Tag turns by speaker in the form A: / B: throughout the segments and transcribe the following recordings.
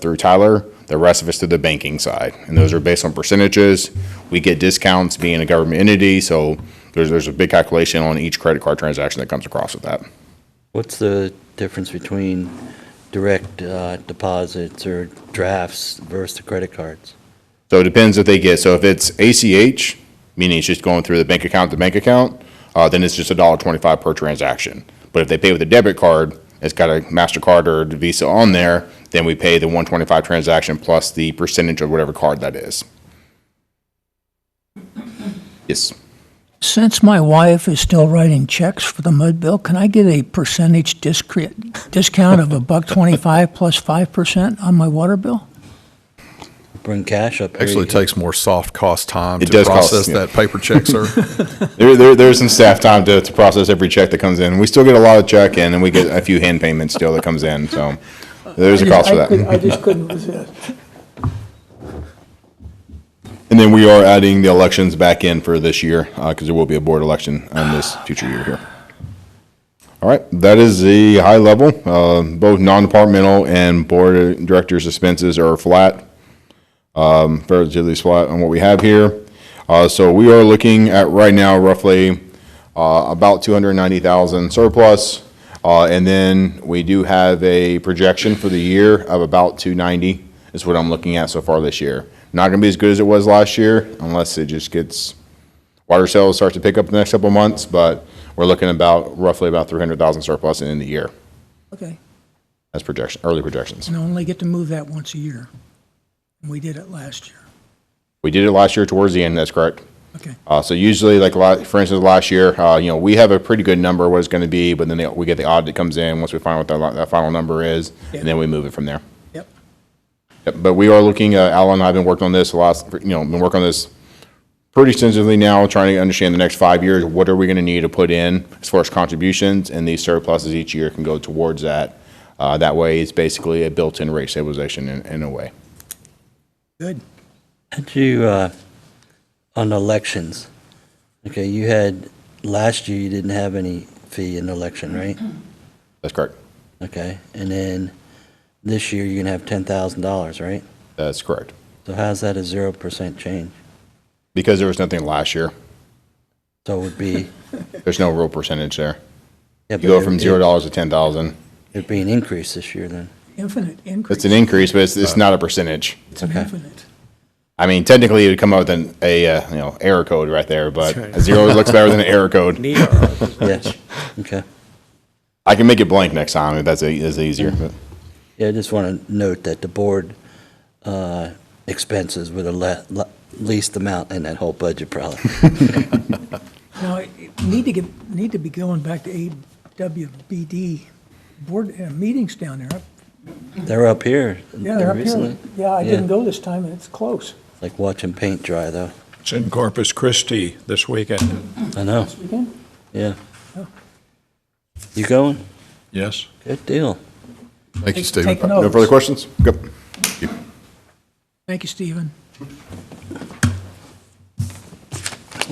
A: through Tyler, the rest of it's through the banking side. And those are based on percentages. We get discounts being a government entity, so there's, there's a big calculation on each credit card transaction that comes across with that.
B: What's the difference between direct uh, deposits or drafts versus the credit cards?
A: So it depends if they get, so if it's ACH, meaning it's just going through the bank account to bank account, uh, then it's just a dollar twenty-five per transaction. But if they pay with a debit card, it's got a MasterCard or a Visa on there, then we pay the one twenty-five transaction plus the percentage of whatever card that is. Yes.
C: Since my wife is still writing checks for the mud bill, can I get a percentage discre- discount of a buck twenty-five plus five percent on my water bill?
B: Bring cash up. here,
D: Actually
B: you-
D: takes more soft cost time
A: It
D: to
A: does cost,
D: process
A: yeah.
D: that paper check, sir.
A: There, there, there's some staff time to, to process every check that comes in. We still get a lot of check in, and we get a few hand payments still that comes in, so there's a cost for that.
E: I just couldn't resist.
A: And then we are adding the elections back in for this year, because there will be a board election on this future year here. All right, that is the high level. Uh, Both non-departmental and board of directors expenses are flat, um, relatively flat on what we have here. Uh, So we are looking at right now roughly uh, about 290,000 surplus. Uh, And then we do have a projection for the year of about 290 is what I'm looking at so far this year. Not going to be as good as it was last year unless it just gets, water sales starts to pick up the next couple of months, but we're looking about roughly about 300,000 surplus in the year
C: Okay,
A: as projection, early projections.
C: and I only get to move that once a year. And we did it last year.
A: We did it last year towards the end, that's correct.
C: Okay,
A: Uh, so usually, like la for instance, last year, uh, you know, we have a pretty good number of what it's going to be, but then they, we get the audit that comes in once we find what that, li- that final number is,
C: Yeah.
A: and then we move it from there.
C: yep.
A: Yep, But we are looking, uh, Alan and I have been working on this a lot, you know, been working on this pretty extensively now, trying to understand the next five years, what are we going to need to put in as far as contributions, and these surpluses each year can go towards that. Uh, that way, it's basically a built-in rate stabilization in, in a way.
C: Good.
B: Had you, uh, on elections, okay, you had, last year you didn't have any fee in election, right?
A: Mm-hmm. That's correct.
B: Okay, and then this year you're gonna have ten thousand dollars, right?
A: That's correct.
B: So how's that a zero percent change?
A: Because there was nothing last year,
B: So it would be.
A: there's no real percentage there.
B: yeah,
A: You
B: but
A: go
B: it-
A: from zero dollars to ten thousand.
B: It'd be an increase this year then.
C: Infinite increase.
A: It's an increase, but it's, it's not a percentage.
C: It's an infinite.
A: I mean, technically, it would come out with an, a, uh, you know, error code right there, but a zero looks better than an error code.
B: Yes, okay.
A: I can make it blank next time if that's, e- that's easier. but-
B: Yeah, I just want to note that the board uh, expenses were the le- le- least amount in that whole budget, probably.
C: Now, I need to get, need to be going back to AWBD board, uh, meetings down there.
B: They're up here.
C: Yeah, they're up
B: recently.
C: here. Yeah, I
B: Yeah.
C: didn't go this time, and it's close.
B: Like watching paint dry, though.
F: It's in Corpus Christi this weekend.
B: I know,
C: Weekend?
B: yeah. You going?
F: Yes.
B: Good deal.
D: Thank you,
C: Take-
D: Stephen.
C: take note.
A: No further questions? Good.
C: Thank you, Stephen.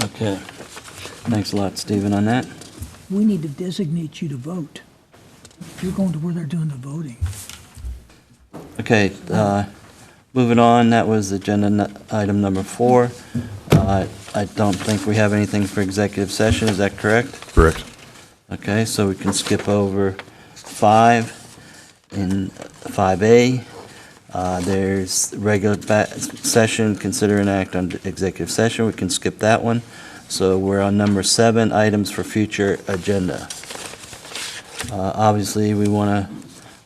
B: Okay. Thanks a lot, Stephen, on that.
C: We need to designate you to vote. You're going to where they're doing the voting.
B: Okay, uh, moving on, that was agenda nu- item number four. Uh, I don't think we have anything for executive session, is that correct?
D: Correct.
B: Okay, so we can skip over five and five A. Uh, there's regular ba- session, consider an act on executive session. We can skip that one. So we're on number seven, items for future agenda. Uh, obviously, we want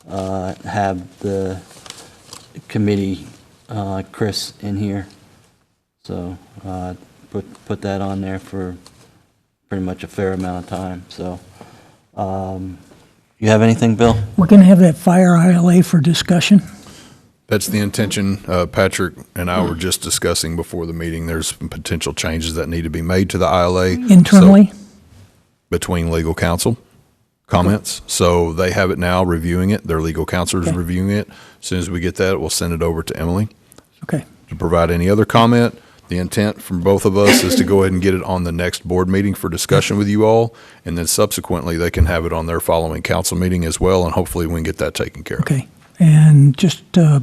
B: to, uh, have the committee, uh, Chris in here. So, uh, put, put that on there for pretty much a fair amount of time, so. um, You have anything, Bill?
C: We're going to have that fire ILA for discussion.
D: That's the intention. Uh, Patrick and I were just discussing before the meeting, there's some potential changes that need to be made to the ILA. so-
C: Internally,
D: Between legal counsel comments. So they have it now reviewing it. Their legal counsel is
C: Okay.
D: reviewing it. As Soon as we get that, we'll send it over to Emily.
C: okay.
D: to provide any other comment. The intent from both of us is to go ahead and get it on the next board meeting for discussion with you all. And then subsequently, they can have it on their following council meeting as well. And hopefully we can get that taken care of.
C: Okay, and just uh,